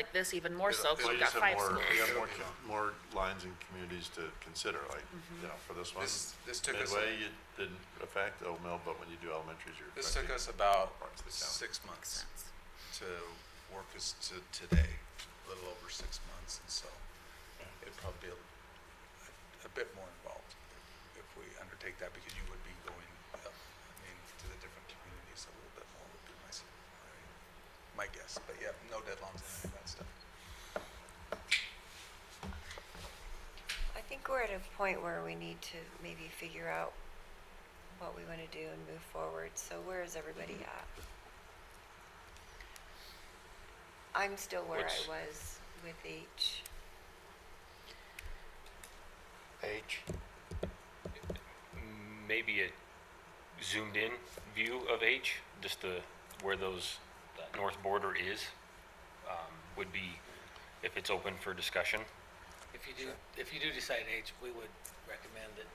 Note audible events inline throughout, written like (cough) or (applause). like this even more Yeah, so, so because we've you got said five more- schools. We have more, co- more lines and communities to consider, like, Mm-hmm. you know, for this one. This- this took us- Midway, it didn't affect Old Mill, but when you do elementaries, you're. This took affecting- us about Parts of the town. six months Sense. to work us to today, a little over six months, and so it'd probably be a, a bit more involved if we undertake that, because you would be going, uh, I mean, to the different communities a little bit more would be my, s- my my guess, but yeah, no deadlines and any of that stuff. I think we're at a point where we need to maybe figure out what we want to do and move forward. So where is everybody at? I'm still where I What's- was with H. H. Maybe a zoomed in view of H, just the, where those, that north border is, um, would be, if it's open for discussion. If you do, if you do decide H, we would recommend that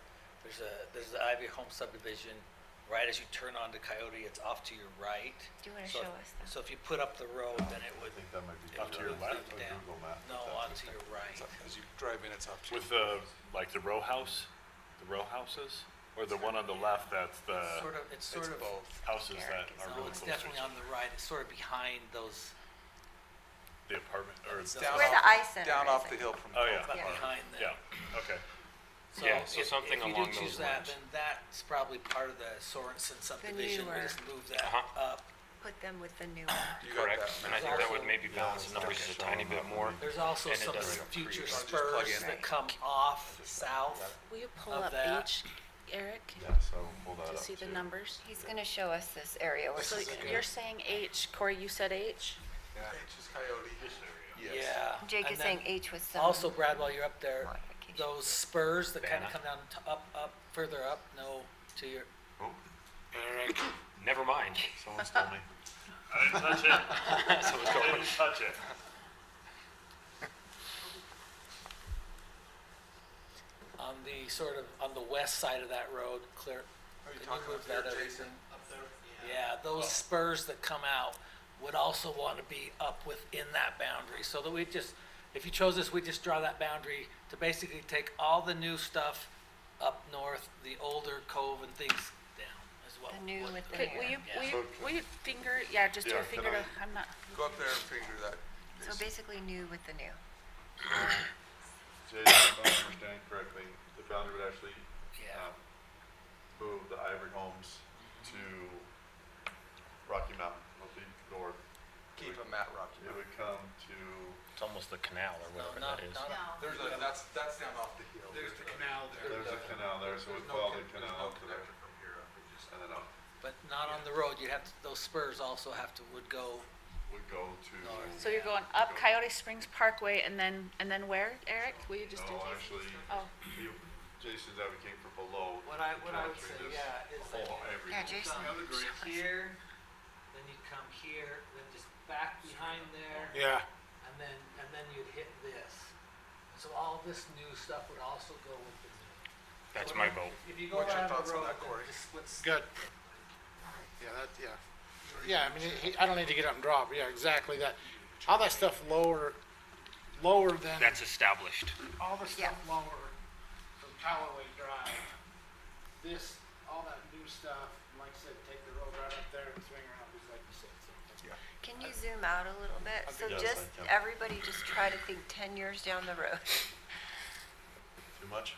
there's a, there's the Ivy Home subdivision, right as you turn onto Coyote, it's off to your right. Do you wanna So if- show us that? So if you put up the road, then it would, I think that might be. Up to your on left? Google map. no, onto your right. So As you drive in, it's up to you. With the, like the row house, the row houses, or the one on the left that's uh, the Sort of, it's sort It's of, both. houses that are no, really it's close to each definitely on the right, it's sort of behind those, the apartment, or, It's Down where off- the eye center Down is, off I the hill from. oh, the- yeah, but Yeah. behind them. yeah, okay. Yeah, so if- something along If you do those choose that, lines. then that's probably part of the Sorenson subdivision, we newer- just move that Uh-huh. up. Put them with the new one. You got Correct, that. and I think that would Also- maybe balance the numbers just a tiny bit more. There's also And it some doesn't have future trees. Just plug spurs in. that come off south. Will you pull Of up that. H, Eric, Yeah, so we'll hold that to up. see the too. numbers? He's going to show us this area. We're So just gonna- you're saying H, Corey, you said H? Yeah. H is Coyote. Yes. Yeah. Jake and is saying then H was some. Also, Brad, while you're up there, Modification. those spurs that kind Banner. of come down, to up, up, further up, no, to your, Alright, Never mind. Someone stole me. I didn't touch it, (laughs) So it's I going- didn't touch it. on the sort of, on the west side of that road, clear. Are you can talking move up there, that over? Jason? Yeah, those spurs that come out would also want to be up within that boundary, so that we just, if you chose this, we just draw that boundary to basically take all the new stuff up north, the older cove and things down as well. The new with the Okay, will you, will you, will you finger, yeah, just do Yeah, a finger to, can I- I'm not, Go up there and figure that. So basically new with the new. Jason, if I'm understanding correctly, the boundary would actually Yeah. um, move the Ivory Homes to Rocky Mountain, it'll be north. Keep them at Rocky It Mountain. would come to It's almost the canal or No, whatever not, that is. not There's a, that's, that's down off the hill. There's the canal There's a canal there, so we There's no follow the con- there's canal no to there, connection from here up, it just- and then up, But not on the road, you have, to- those spurs also have to, would go, we go to, so you're going up Coyote Springs Parkway and then, and then where, Eric? Will you just do no, these? actually, Oh. you- Jason's advocating for below. what I, what I would say, encountering this yeah, is that Whole Ivory Yeah, Home. Jason. come here, then you come here, then just back behind there. Yeah. And then, and then you'd hit this. And so all this new stuff would also go with the new. That's my vote. If you go What's your around thoughts the on road, that, then Corey? it just splits Good. Yeah, that, yeah. Yeah, I mean, he, I don't need to get up and drop, yeah, exactly that. All that stuff lower, lower than, That's established. all the Yeah. stuff lower from Callaway Drive. This, all that new stuff, and like I said, take the road right up there and swing around, just like you said. so. Can you zoom out a little bit? So yes, just, I can. everybody just try to think 10 years down the road. Too much?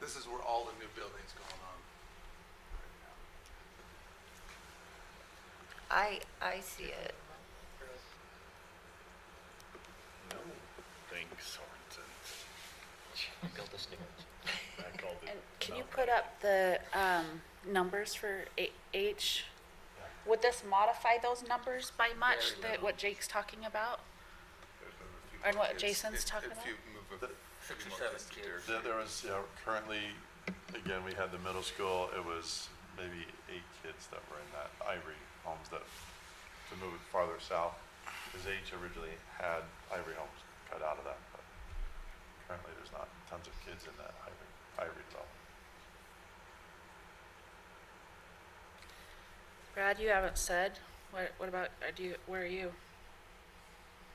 This is where all the new building's going on. I, I see it. Thanks, (laughs) Sorensen. I called it. And can you put up the, um, numbers for A- H? Would this modify those numbers by much, that what Jake's talking about? And what It's- Jason's if- talking If about? you move a six few or more seven distance kids. There, there was, yeah, currently, again, we had the middle school, it was maybe eight kids that were in that Ivory Homes that, to move it farther south, because H originally had Ivory Homes cut out of that, but currently there's not tons of kids in that Ivory, Ivory development. Brad, you haven't said, what, what about, uh, do you, where are you?